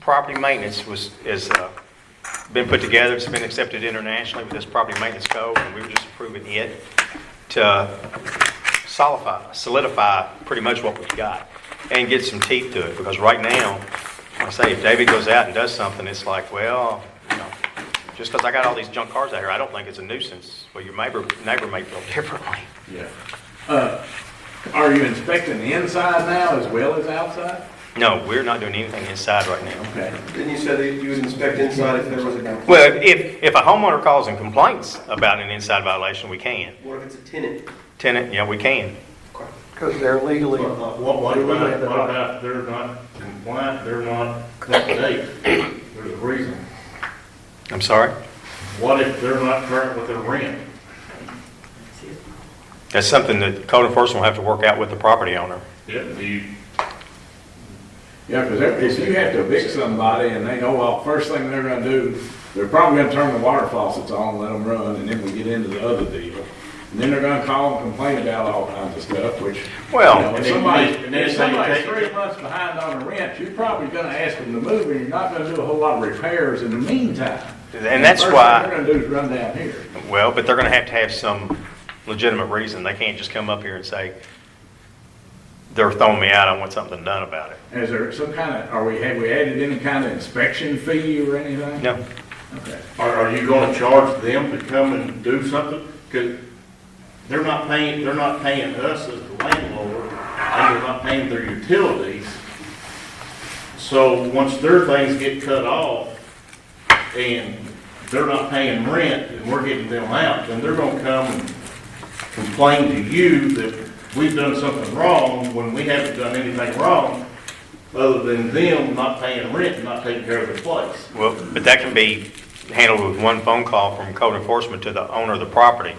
property maintenance was, is, uh, been put together, it's been accepted internationally with this property maintenance code, and we were just approving it to solidify, solidify pretty much what we've got and get some teeth to it, because right now, I say, if David goes out and does something, it's like, well, you know, just because I got all these junk cars out here, I don't think it's a nuisance. Well, your neighbor, neighbor may feel differently. Yeah. Uh, Are you inspecting the inside now as well as outside? No, we're not doing anything inside right now. Okay. Then you said that you would inspect inside if there was a complaint. Well, if, if a homeowner calls and complains about an inside violation, we can. What if it's a tenant? Tenant, yeah, we can. Because they're legally, What, what about, what about if they're not compliant, they're not up to date? There's a reason. I'm sorry? What if they're not current with their rent? That's something that code enforcement will have to work out with the property owner. Yeah, do you, Yeah, because if you have to evict somebody and they know, well, first thing they're gonna do, they're probably gonna turn the water faucets on, let them run, and then we get into the other deal. And then they're gonna call and complain about all kinds of stuff, which. you Well- know, And If then you somebody, need- and then if so you somebody's take- three months behind on a rent, you're probably gonna ask them to move, and you're not gonna do a whole lot of repairs in the meantime. And that's First thing why- They're gonna do is run down here. Well, but they're going to have to have some legitimate reason. They can't just come up here and say, they're throwing me out, I want something done about it. Is there some kind of, are we, have we added any kind of inspection fee or anything? No, Okay. are, are you gonna charge them to come and do something? Cause they're not paying, they're not paying us as the landlord, and they're not paying their utilities. So once their things get cut off, and they're not paying rent, and we're getting them out, then they're gonna come and complain to you that we've done something wrong when we haven't done anything wrong, other than them not paying rent and not taking care of their place. well, but that can be handled with one phone call from code enforcement to the owner of the property.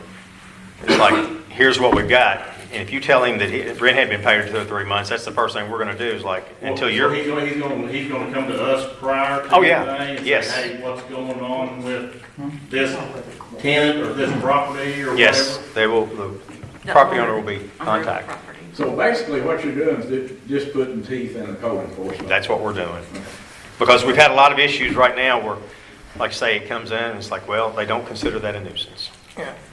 It's like, here's what we've got. And if you tell him that he- rent had been paid for two or three months, that's the first thing we're going to do is like, until Well, you're. He's gonna, he's gonna, he's gonna come to us prior to Oh, yeah. anything and Yes. say, hey, what's going on with this tenant or this property or whatever? Yes, they will, the property owner will be contacted. So basically, what you're doing is ju- just putting teeth in the code enforcement. That's what we're doing. Because we've had a lot of issues right now where, like say, it comes in and it's like, well, they don't consider that a nuisance.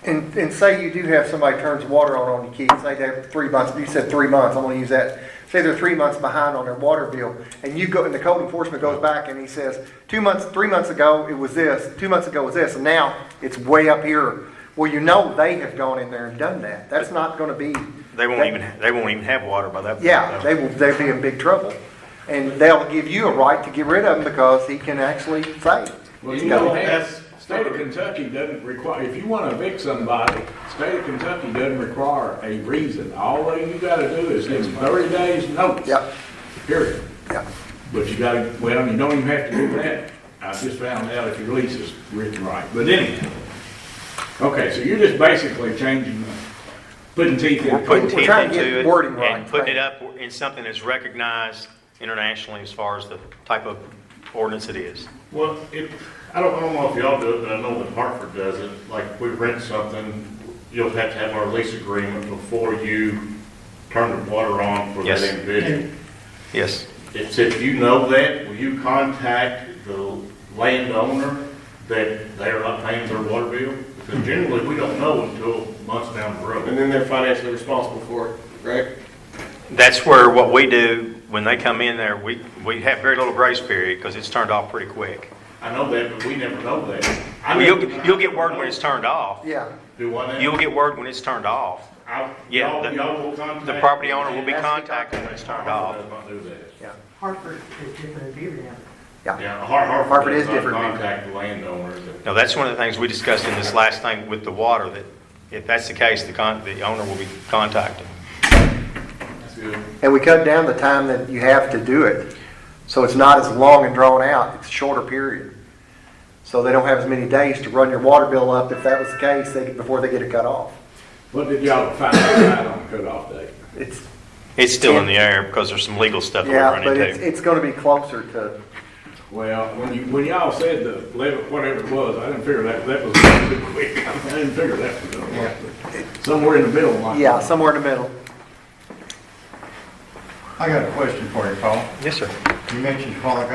and, and say you do have somebody turns water on on your kid, say they're three months, you said three months, I'm gonna use that. Say they're three months behind on their water bill, and you go, and the code enforcement goes back and he says, two months, three months ago, it was this, two months ago was this, and now it's way up here. Well, you know they have gone in there and done that. That's not gonna be. They won't even, they won't even have water by that point. Yeah, though. they will, they'll be in big trouble. And they'll give you a right to get rid of them because he can actually say. Well, he's you got know, a- that's, state of Kentucky doesn't require, if you want to evict somebody, state of Kentucky doesn't require a reason. All you got to do is give 30 days notice. Yep. Period. Yeah. But you got to, well, you don't even have to do that. I just found out if your lease is written right, but anyhow. Okay, so you're just basically changing, the- putting teeth in. We're putting We're teeth trying to into get it wording right. and putting it up in something that's recognized internationally as far as the type of ordinance it is. Well, it, I don't, I don't know if y'all do it, but I know that Hartford does it, like, we rent something, you'll have to have our lease agreement before you turn the water on for that Yes. individual. Yes, It's if you know that, will you contact the landowner that they are not paying their water bill? Because generally, we don't know until months down the road. And then they're financially responsible for it, right? that's where what we do, when they come in there, we, we have very little grace period because it's turned off pretty quick. I know that, but we never know that. I You'll, never- you'll get word when it's turned off. Yeah. Do I You'll know? get word when it's turned off. I- yeah, y'all- the- y'all will contact- The property owner will be Has to be contacted when it's turned off. Does not do that. Hartford is different than Beaver Dam. Yeah, Har- Hartford. Hartford is does not different. Contact the landowner. that- Now, that's one of the things we discussed in this last thing with the water, that if that's the case, the con, the owner will be contacted. That's good. And we cut down the time that you have to do it, so it's not as long and drawn out, it's a shorter period. So they don't have as many days to run your water bill up, if that was the case, they, before they get it cut off. What did y'all find out on cutoff date? It's, It's still in the air because there's some legal stuff that we yeah, run but it's, into. it's gonna be closer to, Well, when you, when y'all said the eleven, whatever it was, I didn't figure that, that was too quick. I didn't figure that was gonna work. Somewhere in the middle, like. yeah, somewhere in the middle. I got a question for you, Paul. Yes, sir. You mentioned a while ago